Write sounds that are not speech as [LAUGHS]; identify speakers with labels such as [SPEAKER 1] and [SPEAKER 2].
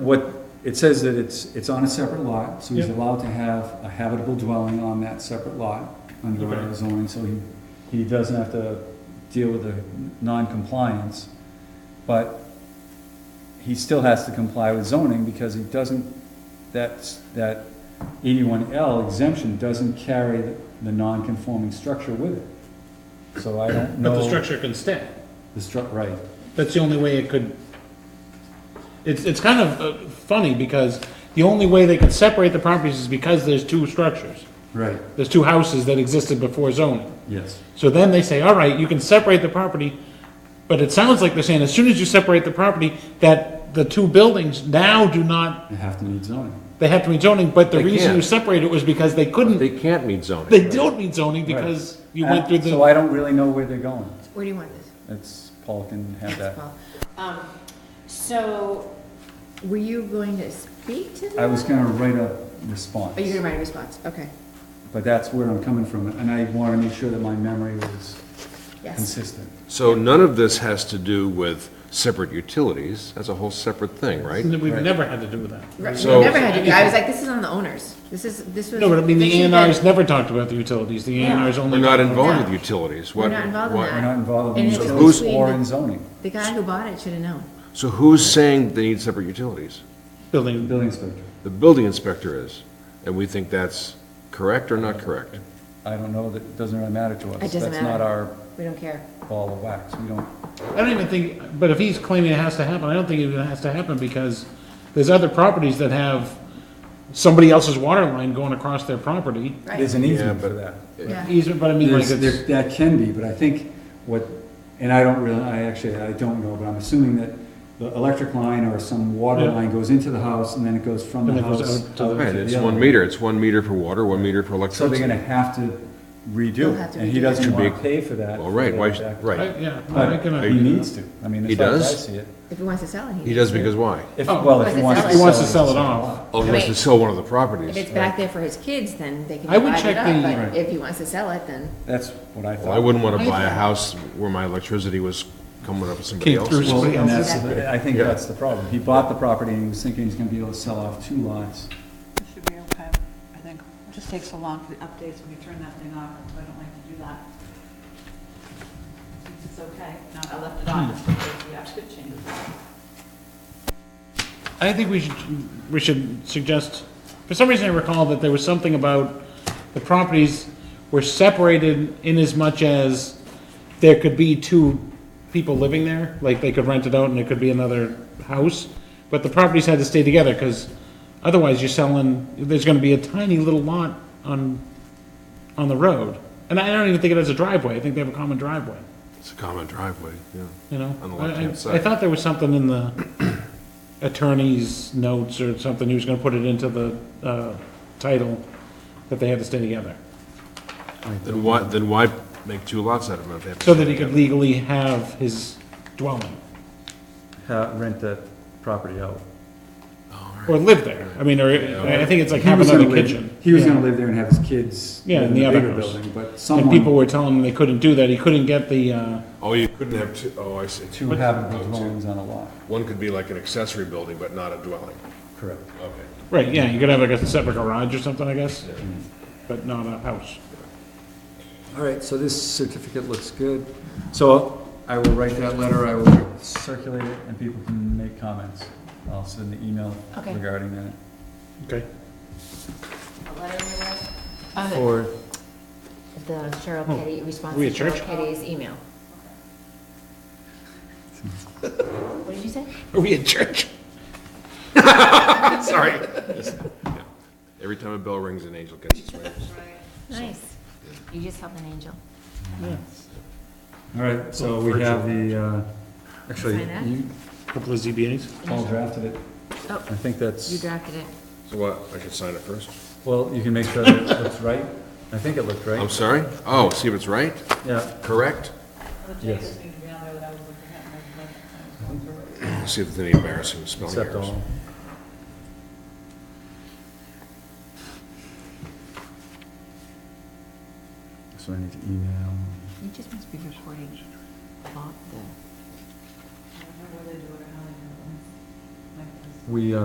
[SPEAKER 1] what, it says that it's, it's on a separate lot, so he's
[SPEAKER 2] Yep.
[SPEAKER 1] allowed to have a habitable dwelling on that separate lot under our
[SPEAKER 2] Okay.
[SPEAKER 1] zoning, so he, he doesn't have to deal with the non-compliance. But he still has to comply with zoning because he doesn't, that's, that eighty-one L exemption doesn't carry the, the non-conforming structure with it. So I don't know.
[SPEAKER 2] But the structure can stay.
[SPEAKER 1] The stru- right.
[SPEAKER 2] That's the only way it could. It's, it's kind of uh, funny because the only way they could separate the properties is because there's two structures.
[SPEAKER 1] Right.
[SPEAKER 2] There's two houses that existed before zoning.
[SPEAKER 1] Yes.
[SPEAKER 2] So then they say, all right, you can separate the property, but it sounds like they're saying as soon as you separate the property, that the two buildings now do not,
[SPEAKER 1] They have to need zoning.
[SPEAKER 2] they have to meet zoning, but the
[SPEAKER 3] They
[SPEAKER 2] reason
[SPEAKER 3] can't.
[SPEAKER 2] you separated it was because they couldn't,
[SPEAKER 3] They can't meet zoning.
[SPEAKER 2] they don't meet zoning because you
[SPEAKER 1] Uh,
[SPEAKER 2] went through
[SPEAKER 1] So
[SPEAKER 2] the,
[SPEAKER 1] I don't really know where they're going.
[SPEAKER 4] Where do you want this?
[SPEAKER 1] That's, Paul can have that.
[SPEAKER 4] Paul? Um, So, were you going to speak to
[SPEAKER 1] I
[SPEAKER 4] that?
[SPEAKER 1] was gonna write a response,
[SPEAKER 4] Are you gonna write a response? Okay,
[SPEAKER 1] but that's where I'm coming from, and I wanna make sure that my memory was
[SPEAKER 4] yes.
[SPEAKER 1] consistent.
[SPEAKER 3] So none of this has to do with separate utilities, that's a whole separate thing, right?
[SPEAKER 2] we've never had to do that.
[SPEAKER 4] Right,
[SPEAKER 3] So-
[SPEAKER 4] Never had to do, I was like, this is on the owners. This is, this was.
[SPEAKER 2] No, but I mean, the
[SPEAKER 4] this
[SPEAKER 2] A
[SPEAKER 4] is
[SPEAKER 2] and R's never talked about the utilities, the A and
[SPEAKER 4] Yeah.
[SPEAKER 2] R's only.
[SPEAKER 3] We're not
[SPEAKER 2] talked about-
[SPEAKER 3] involved with utilities.
[SPEAKER 4] We're
[SPEAKER 3] What-
[SPEAKER 4] not involved in
[SPEAKER 3] why-
[SPEAKER 1] We're not involved in
[SPEAKER 4] And it's
[SPEAKER 1] utilities
[SPEAKER 4] between
[SPEAKER 1] or
[SPEAKER 4] the-
[SPEAKER 1] in zoning,
[SPEAKER 4] The guy who bought it should have known.
[SPEAKER 3] So who's saying they need separate utilities?
[SPEAKER 1] the
[SPEAKER 2] Building,
[SPEAKER 1] building inspector.
[SPEAKER 3] The building inspector is, and we think that's correct or not correct?
[SPEAKER 1] I don't know, that doesn't really matter to us.
[SPEAKER 4] It doesn't
[SPEAKER 1] That's not our
[SPEAKER 4] We don't care.
[SPEAKER 1] ball of wax, we don't,
[SPEAKER 2] I don't even think, but if he's claiming it has to happen, I don't think it has to happen because there's other properties that have somebody else's water line going across their property.
[SPEAKER 1] there's an
[SPEAKER 4] Right,
[SPEAKER 3] Yeah,
[SPEAKER 1] easement for
[SPEAKER 3] but-
[SPEAKER 1] that.
[SPEAKER 4] yeah.
[SPEAKER 2] Easement, but I mean, like
[SPEAKER 1] There's- there-
[SPEAKER 2] it's,
[SPEAKER 1] That can be, but I think what, and I don't really, I actually, I don't know, but I'm assuming that the electric line or some water
[SPEAKER 2] Yeah.
[SPEAKER 1] line goes into the house and then it goes from the
[SPEAKER 2] And it goes
[SPEAKER 1] house.
[SPEAKER 2] out to the-
[SPEAKER 1] out
[SPEAKER 3] Right,
[SPEAKER 1] the
[SPEAKER 3] it's
[SPEAKER 1] other
[SPEAKER 3] one
[SPEAKER 1] one.
[SPEAKER 3] meter, it's one meter for water, one meter for
[SPEAKER 1] So they're
[SPEAKER 3] electricity.
[SPEAKER 1] gonna have to redo
[SPEAKER 4] They'll
[SPEAKER 1] it,
[SPEAKER 4] have to
[SPEAKER 1] and he
[SPEAKER 4] redo it.
[SPEAKER 1] doesn't
[SPEAKER 3] Should be-
[SPEAKER 1] wanna pay for that.
[SPEAKER 3] Well, right, why, sh- right.
[SPEAKER 2] I- yeah. I can
[SPEAKER 1] But he
[SPEAKER 2] agree
[SPEAKER 1] needs
[SPEAKER 2] with
[SPEAKER 1] to, I mean,
[SPEAKER 3] He
[SPEAKER 1] as far as I
[SPEAKER 3] does?
[SPEAKER 1] see it.
[SPEAKER 4] If he wants to sell it, he.
[SPEAKER 3] He does because why?
[SPEAKER 1] If,
[SPEAKER 2] Oh.
[SPEAKER 1] well, if he
[SPEAKER 4] Unless
[SPEAKER 1] wants
[SPEAKER 4] it's
[SPEAKER 1] to
[SPEAKER 2] He wants to
[SPEAKER 1] sell
[SPEAKER 2] sell
[SPEAKER 1] it.
[SPEAKER 2] it off.
[SPEAKER 3] Oh, he wants to
[SPEAKER 4] Right.
[SPEAKER 3] sell one of the
[SPEAKER 4] If
[SPEAKER 3] properties.
[SPEAKER 4] it's back there for his kids, then they can
[SPEAKER 2] I would
[SPEAKER 4] divide it
[SPEAKER 2] check the-
[SPEAKER 4] up, but
[SPEAKER 1] Right.
[SPEAKER 4] if he wants to sell it, then.
[SPEAKER 1] That's what I
[SPEAKER 3] Well,
[SPEAKER 1] thought.
[SPEAKER 3] I wouldn't want to buy a house where my electricity was coming up with somebody
[SPEAKER 2] Came through
[SPEAKER 3] else's.
[SPEAKER 1] Well,
[SPEAKER 2] somebody
[SPEAKER 1] and
[SPEAKER 2] else's.
[SPEAKER 1] that's, the- I think
[SPEAKER 3] Yeah.
[SPEAKER 1] that's the problem. He bought the property and he was thinking he's gonna be able to sell off two lots.
[SPEAKER 5] It should be okay, I think. It just takes so long for the updates when you turn that thing off, so I don't like to do that. Since it's okay, no, I left it on, just in case we have to change it.
[SPEAKER 2] I think we should, we should suggest, for some reason I recall that there was something about the properties were separated in as much as there could be two people living there, like they could rent it out and it could be another house, but the properties had to stay together, because otherwise you're selling, there's gonna be a tiny little lot on, on the road. And I don't even think it has a driveway, I think they have a common driveway,
[SPEAKER 3] It's a common driveway, yeah.
[SPEAKER 2] you know?
[SPEAKER 3] On the
[SPEAKER 2] I- I-
[SPEAKER 3] left-hand side.
[SPEAKER 2] I thought there was something in the attorney's notes or something, he was gonna put it into the, uh, title, that they had to stay together.
[SPEAKER 3] Then why, then why make two lots out of them if they have to?
[SPEAKER 2] So that he could legally have his dwelling,
[SPEAKER 1] Ha- Rent that property out.
[SPEAKER 2] or live there, I mean, or, I think it's like
[SPEAKER 1] He
[SPEAKER 2] have
[SPEAKER 1] was
[SPEAKER 2] another
[SPEAKER 1] gonna live-
[SPEAKER 2] kitchen.
[SPEAKER 1] He was
[SPEAKER 2] Yeah.
[SPEAKER 1] gonna live there and have his kids
[SPEAKER 2] Yeah,
[SPEAKER 1] live in
[SPEAKER 2] in the
[SPEAKER 1] the
[SPEAKER 2] other
[SPEAKER 1] bigger
[SPEAKER 2] house.
[SPEAKER 1] building, but
[SPEAKER 2] And people
[SPEAKER 1] someone,
[SPEAKER 2] were telling him they couldn't do that, he couldn't get the, uh,
[SPEAKER 3] Oh, you couldn't have two, oh, I see.
[SPEAKER 1] two
[SPEAKER 3] Oh,
[SPEAKER 1] habitable
[SPEAKER 3] two.
[SPEAKER 1] dwellings on a lot.
[SPEAKER 3] One could be like an accessory building, but not a dwelling.
[SPEAKER 1] Correct.
[SPEAKER 3] Okay.
[SPEAKER 2] right, yeah, you could have like a separate garage or something, I guess, but not a house.
[SPEAKER 1] All right, so this certificate looks good. So I will write that letter, I will circulate it, and people can make comments. I'll send an email
[SPEAKER 4] Okay.
[SPEAKER 1] regarding that.
[SPEAKER 2] Okay.
[SPEAKER 4] A letter in the mail? Uh,
[SPEAKER 1] Or,
[SPEAKER 4] The Cheryl
[SPEAKER 2] Oh,
[SPEAKER 4] Petty, response
[SPEAKER 2] we
[SPEAKER 4] to
[SPEAKER 2] at
[SPEAKER 4] Cheryl
[SPEAKER 2] church?
[SPEAKER 4] Petty's [LAUGHS] email. What did you say?
[SPEAKER 2] Are we in church?
[SPEAKER 3] Sorry. Yeah. Every time a bell rings, an angel gets its wings.
[SPEAKER 4] Nice. You just helped an angel.
[SPEAKER 1] all right, so we have the, uh, actually,
[SPEAKER 4] Sign that?
[SPEAKER 1] you,
[SPEAKER 2] Couple of ZBAs.
[SPEAKER 1] Paul drafted it.
[SPEAKER 4] Oh,
[SPEAKER 1] I think
[SPEAKER 4] you
[SPEAKER 1] that's,
[SPEAKER 4] drafted it.
[SPEAKER 3] So what, I could sign it first?
[SPEAKER 1] well, you can make sure that it looks right. I think it looked
[SPEAKER 3] I'm
[SPEAKER 1] right.
[SPEAKER 3] sorry? Oh, see if it's right?
[SPEAKER 1] Yeah,
[SPEAKER 3] Correct?
[SPEAKER 5] The
[SPEAKER 1] Yes.
[SPEAKER 5] changes need to be on there that I was looking at, and I was like, I was going through it.
[SPEAKER 3] See if there's any embarrassing spelling
[SPEAKER 1] except
[SPEAKER 3] errors.
[SPEAKER 1] all. So I need to email.
[SPEAKER 4] You just must be recording about the.
[SPEAKER 5] I don't know where they do it or how they do it. Like this.
[SPEAKER 1] We, uh,